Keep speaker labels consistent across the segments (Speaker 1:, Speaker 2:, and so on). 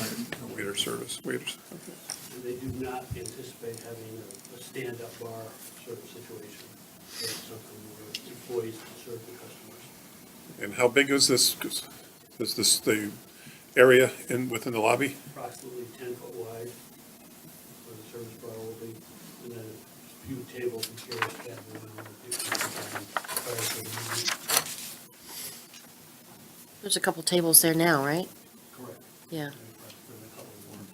Speaker 1: A Waiter service, waiters.
Speaker 2: And they do not anticipate having a- a stand-up bar sort of situation. It's something where employees can serve the customers.
Speaker 1: And how big is this, is this the area in, within the lobby?
Speaker 2: Approximately ten foot wide where the service bar will be, and then a few tables and chairs scattered around. that people can find prior to the meeting.
Speaker 3: There's a couple tables there now, right?
Speaker 2: Correct.
Speaker 3: Yeah.
Speaker 2: There's a couple more.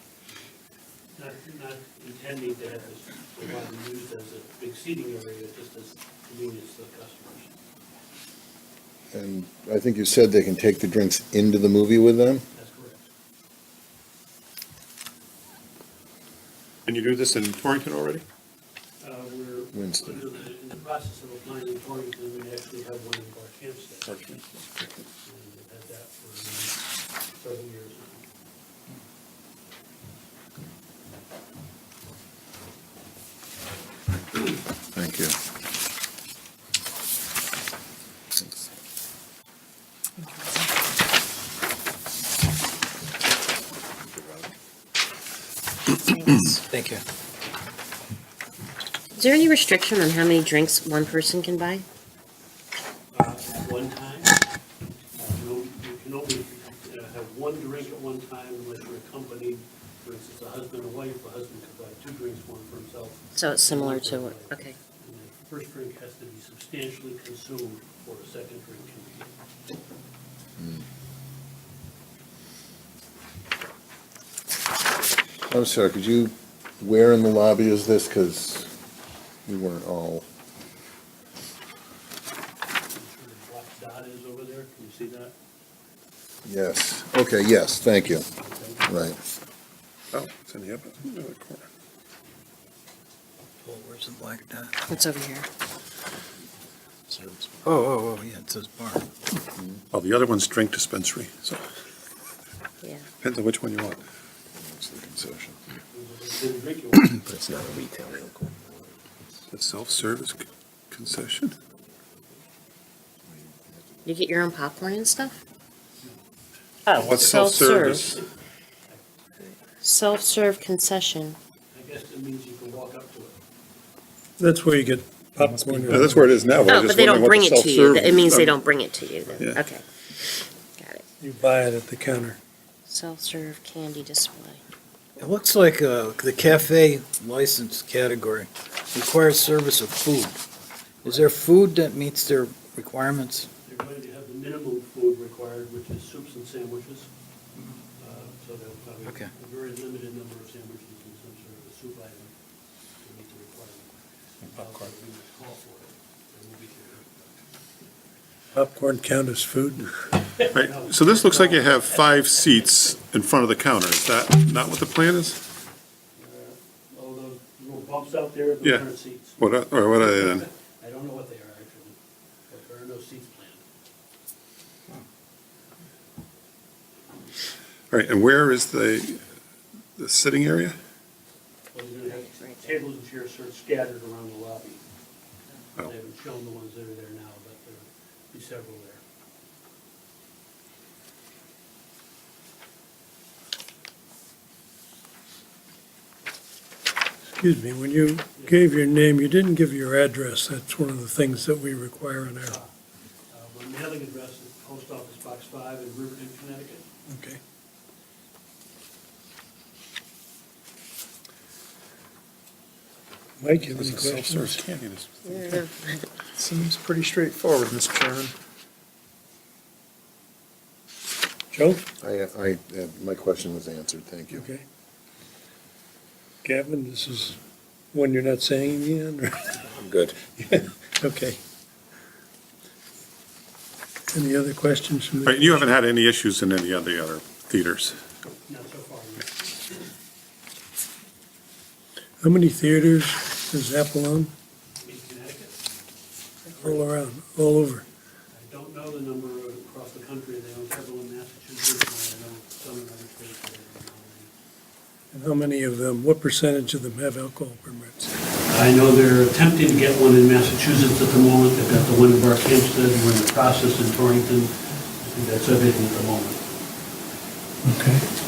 Speaker 2: Not, not intending to have this provided used as a big seating area, just as convenience to the customers.
Speaker 4: And I think you said they can take the drinks into the movie with them?
Speaker 2: That's correct.
Speaker 1: And you do this in Torrington already?
Speaker 2: Uh, We're
Speaker 4: Winston.
Speaker 2: under the- in the process of applying in Torrington, we actually have one in Park Hempstead.
Speaker 1: Park
Speaker 2: And we've had that for um, several years now.
Speaker 4: Thank you.
Speaker 5: Thank you.
Speaker 3: Is there any restriction on how many drinks one person can buy?
Speaker 2: Uh, At one time, uh, no- you can only uh, have one drink at one time unless you're accompanied, for instance, a husband and wife, a husband could buy two drinks, one for himself.
Speaker 3: So it's similar
Speaker 2: one for
Speaker 3: to
Speaker 2: his
Speaker 3: what,
Speaker 2: wife.
Speaker 3: okay.
Speaker 2: And the First drink has to be substantially consumed before a second drink can be given.
Speaker 4: I'm sorry, Oh, could you, where in the lobby is this? Because we weren't all,
Speaker 2: Sure the black dot is over there, can you see that?
Speaker 4: yes, okay, yes, thank you, right.
Speaker 1: Oh, it's in the upper, in the other corner.
Speaker 5: Oh, where's the black dot?
Speaker 3: It's over here.
Speaker 5: Oh, oh, oh, yeah, it says bar.
Speaker 1: Oh, the other one's drink dispensary, so
Speaker 3: Yeah.
Speaker 1: depends on which one you want.
Speaker 4: It's the concession.
Speaker 2: Didn't drink it.
Speaker 4: But it's not a retail local.
Speaker 1: The self-service c- concession?
Speaker 3: You get your own popcorn and stuff? Oh,
Speaker 1: What's self-service?
Speaker 3: Self-serve concession.
Speaker 2: I guess it means you can walk up to it.
Speaker 6: That's where you get popcorn.
Speaker 1: Yeah, That's where it is now. I
Speaker 3: Oh,
Speaker 1: was
Speaker 3: but
Speaker 1: just
Speaker 3: they don't
Speaker 1: wondering
Speaker 3: bring
Speaker 1: what
Speaker 3: it to
Speaker 1: the
Speaker 3: you. It means
Speaker 1: self-service-
Speaker 3: they don't bring it to you then.
Speaker 1: Yeah.
Speaker 3: Okay. Got it.
Speaker 6: You buy it at the counter.
Speaker 3: Self-serve candy display.
Speaker 5: It looks like uh, the cafe license category requires service of food. Is there food that meets their requirements?
Speaker 2: They're going to have the minimum food required, which is soups and sandwiches. Uh, So they'll probably,
Speaker 5: Okay.
Speaker 2: a very limited number of sandwiches and some sort of a soup item to meet the requirement. Popcorn. We would call for it, and we'll be here.
Speaker 6: Popcorn count as food.
Speaker 1: Right, so this looks like you have five seats in front of the counter. Is that not what the plan is?
Speaker 2: Uh, All those little bumps out there, those
Speaker 1: Yeah.
Speaker 2: aren't seats.
Speaker 1: What, are- or what uh, are they then?
Speaker 2: I don't know what they are actually, but there are no seats planned.
Speaker 1: All right, and where is the, the sitting area?
Speaker 2: Well, They're going to have tables and chairs sort of scattered around the lobby. They
Speaker 1: Oh.
Speaker 2: haven't shown the ones that are there now, but there'll be several there.
Speaker 6: Excuse me, when you gave your name, you didn't give your address. That's one of the things that we require in our,
Speaker 2: Uh, My mailing address is Post Office Box 5 in Riverton, Connecticut.
Speaker 6: okay. Mike, you have any questions?
Speaker 7: Seems pretty straightforward, Mr. Chairman.
Speaker 6: Joe?
Speaker 4: I, I, uh, my question was answered, thank you.
Speaker 6: Okay. Gavin, this is one you're not saying again, or?
Speaker 4: I'm good.
Speaker 6: Okay. Any other questions from
Speaker 1: All
Speaker 6: the?
Speaker 1: right, you haven't had any issues in any of the other theaters?
Speaker 2: Not so far, no.
Speaker 6: How many theaters does Apple own?
Speaker 2: in Connecticut.
Speaker 6: All around, all over.
Speaker 2: I don't know the number across the country, they own several in Massachusetts, and I know some in other states. that they don't own
Speaker 6: And how many of them, what percentage of them have alcohol permits?
Speaker 2: any. I know they're attempting to get one in Massachusetts at the moment, they've got the one in Park Hempstead, we're in the process in Torrington. I think that's everything at the moment.
Speaker 6: Okay.